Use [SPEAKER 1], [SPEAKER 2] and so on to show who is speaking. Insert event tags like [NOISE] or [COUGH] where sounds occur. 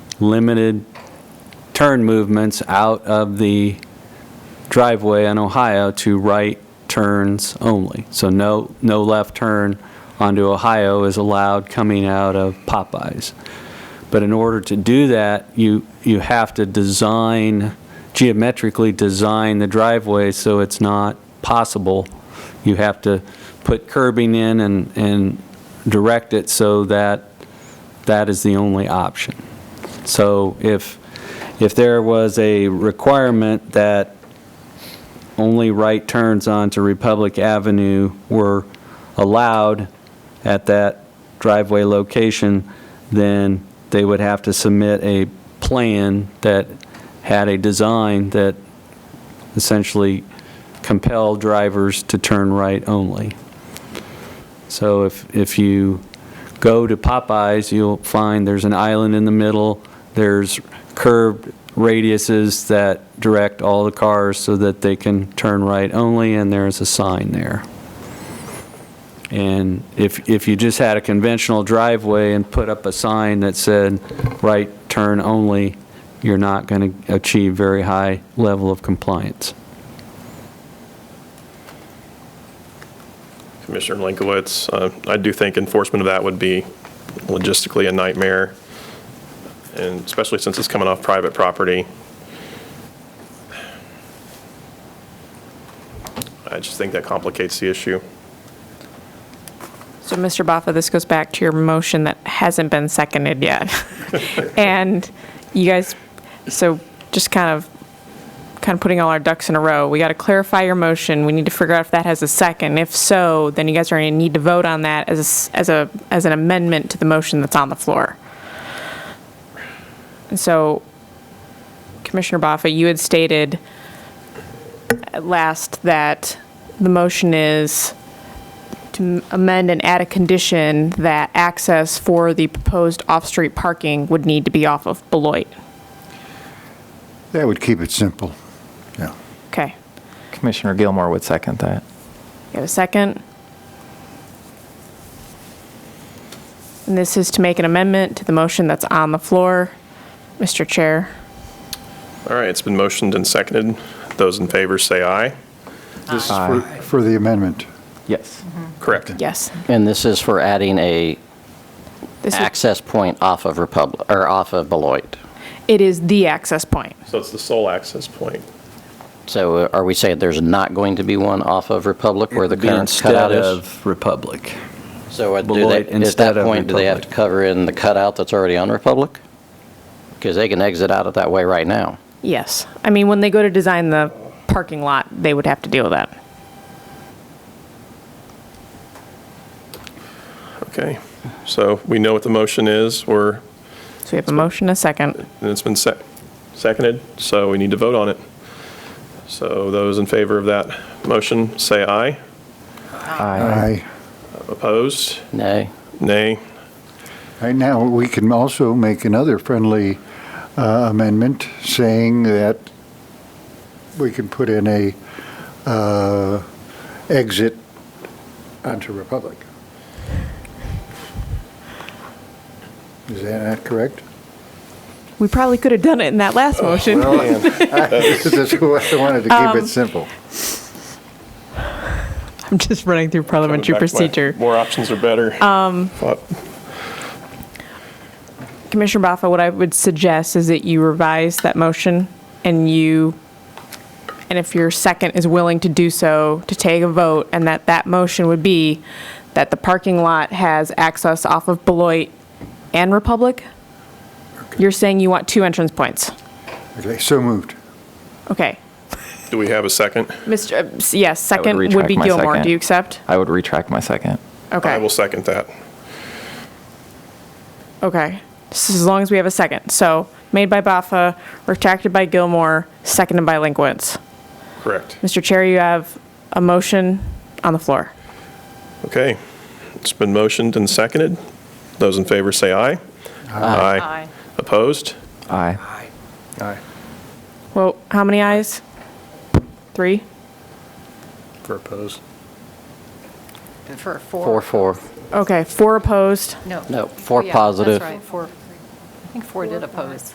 [SPEAKER 1] limited turn movements out of the driveway on Ohio to right turns only. So no, no left turn onto Ohio is allowed coming out of Popeyes. But in order to do that, you, you have to design, geometrically design the driveway so it's not possible. You have to put curbing in and, and direct it so that that is the only option. So if, if there was a requirement that only right turns onto Republic Avenue were allowed at that driveway location, then they would have to submit a plan that had a design that essentially compelled drivers to turn right only. So if, if you go to Popeyes, you'll find there's an island in the middle, there's curved radiuses that direct all the cars so that they can turn right only, and there's a sign there. And if, if you just had a conventional driveway and put up a sign that said, right turn only, you're not going to achieve very high level of compliance.
[SPEAKER 2] Commissioner Linkowitz, uh, I do think enforcement of that would be logistically a nightmare, and especially since it's coming off private property. I just think that complicates the issue.
[SPEAKER 3] So, Mr. Baffa, this goes back to your motion that hasn't been seconded yet. And you guys, so just kind of, kind of putting all our ducks in a row, we got to clarify your motion. We need to figure out if that has a second. If so, then you guys are going to need to vote on that as, a s- as a, as an amendment to the motion that's on the floor. And so, Commissioner Baffa, you had stated at last that the motion is to amend and add a condition that access for the proposed off-street parking would need to be off of Beloit.
[SPEAKER 4] That would keep it simple. Yeah.
[SPEAKER 3] Okay.
[SPEAKER 5] Commissioner Gilmore would second that.
[SPEAKER 3] You have a second? And this is to make an amendment to the motion that's on the floor. Mr. Chair,
[SPEAKER 2] All right, it's been motioned and seconded. Those in favor say aye.
[SPEAKER 4] This is for, for the amendment.
[SPEAKER 5] Yes.
[SPEAKER 2] Correct.
[SPEAKER 3] yes.
[SPEAKER 6] And this is for adding a
[SPEAKER 3] This is,
[SPEAKER 6] access point off of Republic, or off of Beloit.
[SPEAKER 3] it is the access point.
[SPEAKER 2] So it's the sole access point.
[SPEAKER 6] So are we saying there's not going to be one off of Republic where the
[SPEAKER 1] Be
[SPEAKER 6] current
[SPEAKER 1] Instead
[SPEAKER 6] cutout is?
[SPEAKER 1] of Republic.
[SPEAKER 6] So at- do they-
[SPEAKER 1] Beloit
[SPEAKER 6] at
[SPEAKER 1] instead
[SPEAKER 6] that
[SPEAKER 1] of
[SPEAKER 6] point, do they have to
[SPEAKER 1] Republic.
[SPEAKER 6] cover in the cutout that's already on Republic? Because they can exit out of that way right now.
[SPEAKER 3] Yes. I mean, when they go to design the parking lot, they would have to deal with that.
[SPEAKER 2] Okay, so we know what the motion is, we're,
[SPEAKER 3] So we have a motion, a second.
[SPEAKER 2] and it's been sec- seconded, so we need to vote on it. So those in favor of that motion, say aye.
[SPEAKER 5] Aye.
[SPEAKER 4] Aye.
[SPEAKER 2] Opposed?
[SPEAKER 6] Nay?
[SPEAKER 2] Nay.
[SPEAKER 4] Right now, we can also make another friendly uh, amendment saying that we can put in a uh, exit onto Republic. Is that not correct?
[SPEAKER 3] We probably could have done it in that last motion.
[SPEAKER 4] That's why [LAUGHS] I wanted to keep it simple.
[SPEAKER 3] [LAUGHS] I'm just running through
[SPEAKER 2] Coming
[SPEAKER 3] parliamentary
[SPEAKER 2] back to my
[SPEAKER 3] procedure. Um,
[SPEAKER 2] More options are better. Thought-
[SPEAKER 3] Commissioner Baffa, what I would suggest is that you revise that motion and you, and if your second is willing to do so, to take a vote, and that that motion would be that the parking lot has access off of Beloit and Republic? You're saying you want two entrance points?
[SPEAKER 4] Okay, so moved.
[SPEAKER 3] Okay.
[SPEAKER 2] Do we have a second?
[SPEAKER 3] Mr., uh, s- yes, second would
[SPEAKER 5] retract
[SPEAKER 3] be
[SPEAKER 5] my
[SPEAKER 3] Gilmore.
[SPEAKER 5] second.
[SPEAKER 3] Do you accept?
[SPEAKER 5] I would retract my second.
[SPEAKER 3] Okay.
[SPEAKER 2] I will second that.
[SPEAKER 3] Okay. This is as long as we have a second. So made by Baffa, retracted by Gilmore, seconded by Linkwitz.
[SPEAKER 2] Correct.
[SPEAKER 3] Mr. Chair, you have a motion on the floor.
[SPEAKER 2] Okay. It's been motioned and seconded. Those in favor say aye. Aye. Opposed?
[SPEAKER 5] Aye.
[SPEAKER 4] Aye.
[SPEAKER 3] Well, how many ayes? Three?
[SPEAKER 2] For opposed.
[SPEAKER 7] For four?
[SPEAKER 6] Four, four.
[SPEAKER 3] Okay, four opposed.
[SPEAKER 7] No. Oh,
[SPEAKER 6] No, four
[SPEAKER 7] Yeah,
[SPEAKER 6] positive.
[SPEAKER 7] That's right, four. I think four did oppose.